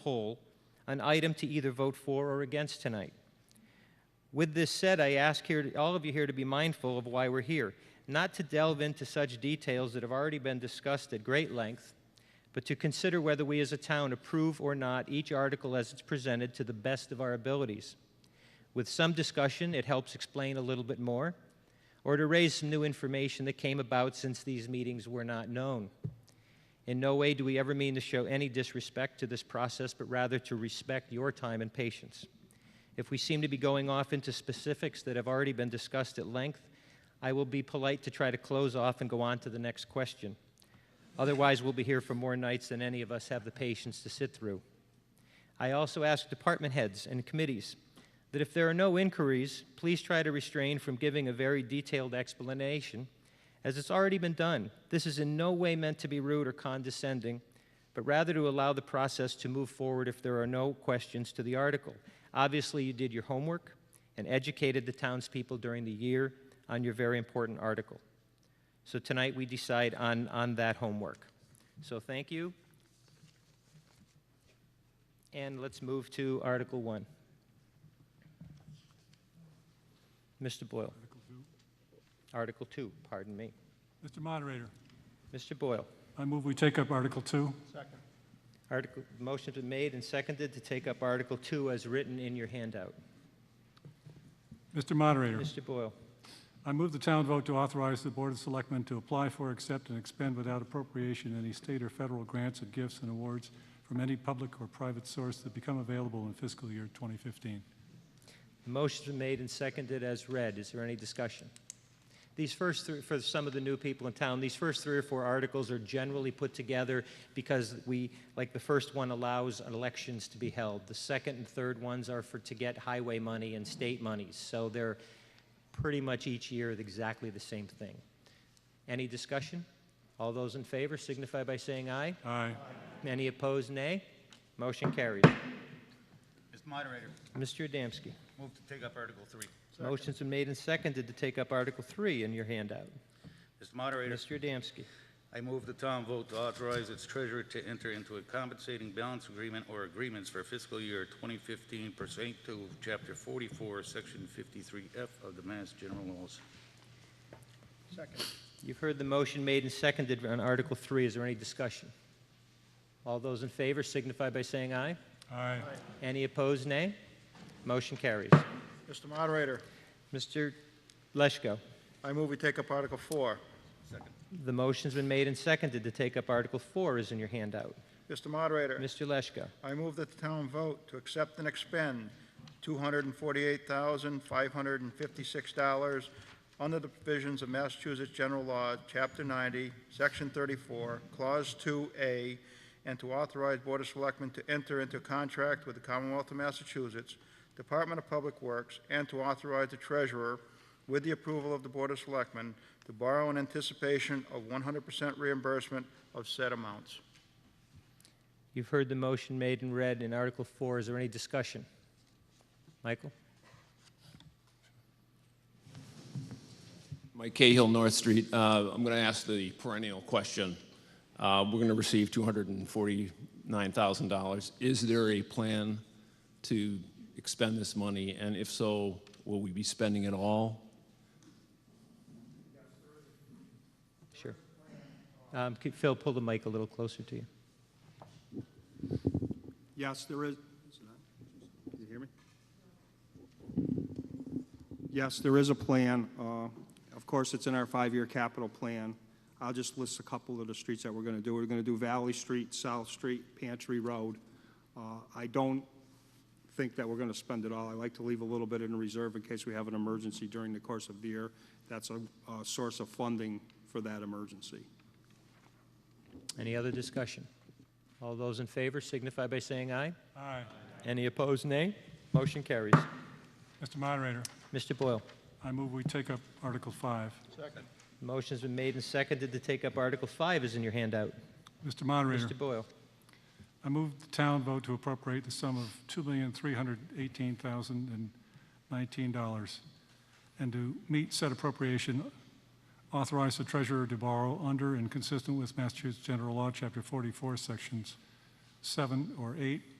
whole an item to either vote for or against tonight. With this said, I ask here, all of you here to be mindful of why we're here, not to delve into such details that have already been discussed at great length, but to consider whether we as a town approve or not each article as it's presented to the best of our abilities. With some discussion, it helps explain a little bit more, or to raise some new information that came about since these meetings were not known. In no way do we ever mean to show any disrespect to this process, but rather to respect your time and patience. If we seem to be going off into specifics that have already been discussed at length, I will be polite to try to close off and go on to the next question. Otherwise, we'll be here for more nights than any of us have the patience to sit through. I also ask department heads and committees that if there are no inquiries, please try to restrain from giving a very detailed explanation, as it's already been done. This is in no way meant to be rude or condescending, but rather to allow the process to move forward if there are no questions to the article. Obviously, you did your homework and educated the townspeople during the year on your very important article. So tonight, we decide on, on that homework. So thank you. And let's move to Article 1. Mr. Boyle. Article 2, pardon me. Mr. Moderator, Mr. Boyle. I move we take up Article 2. Article, motion's been made and seconded to take up Article 2 as written in your handout. Mr. Moderator, Mr. Boyle. I move the town vote to authorize the Board of Selectmen to apply for, accept, and expend without appropriation any state or federal grants and gifts and awards from any public or private source that become available in fiscal year 2015. Motion's been made and seconded as read. Is there any discussion? These first three, for some of the new people in town, these first three or four articles are generally put together because we, like the first one allows elections to be held. The second and third ones are for, to get highway money and state monies. So they're pretty much each year exactly the same thing. Any discussion? All those in favor signify by saying aye. Aye. Any opposed, nay. Motion carries. Mr. Moderator, Mr. Adamski. move to take up Article 3. Motion's been made and seconded to take up Article 3 in your handout. Mr. Moderator, Mr. Adamski. I move the town vote to authorize its treasurer to enter into a compensating balance agreement or agreements for fiscal year 2015 pursuant to Chapter 44, Section 53F of the Mass General Laws. You've heard the motion made and seconded on Article 3. Is there any discussion? All those in favor signify by saying aye. Aye. Any opposed, nay. Motion carries. Mr. Moderator, Mr. Leschko, I move we take up Article 4. the motion's been made and seconded to take up Article 4 is in your handout. Mr. Moderator, Mr. Leschko, I move that the town vote to accept and expend $248,556 under the provisions of Massachusetts General Law, Chapter 90, Section 34, Clause 2A, and to authorize Board of Selectmen to enter into contract with the Commonwealth of Massachusetts, Department of Public Works, and to authorize the treasurer, with the approval of the Board of Selectmen, to borrow in anticipation of 100% reimbursement of said amounts. you've heard the motion made and read in Article 4. Is there any discussion? Michael? Mike Cahill, North Street. Uh, I'm going to ask the perennial question. Uh, We're going to receive $249,000. Is there a plan to expend this money? And if so, will we be spending it all? Sure. Um, could Phil, pull the mic a little closer to you. Yes, there is. is it not? Can you hear me? Yes, there is a plan. Uh, Of course, it's in our five-year capital plan. I'll just list a couple of the streets that we're going to do. We're going to do Valley Street, South Street, Pantry Road. Uh, I don't think that we're going to spend it all. I like to leave a little bit in reserve in case we have an emergency during the course of the year. That's a uh, source of funding for that emergency. Any other discussion? All those in favor signify by saying aye. Aye. Any opposed, nay. Motion carries. Mr. Moderator, Mr. Boyle, I move we take up Article 5. motion's been made and seconded to take up Article 5 is in your handout. Mr. Moderator, Mr. Boyle, I move the town vote to appropriate the sum of $2,318,019 and to meet said appropriation, authorize the treasurer to borrow under and consistent with Massachusetts General Law, Chapter 44, Sections 7 or 8,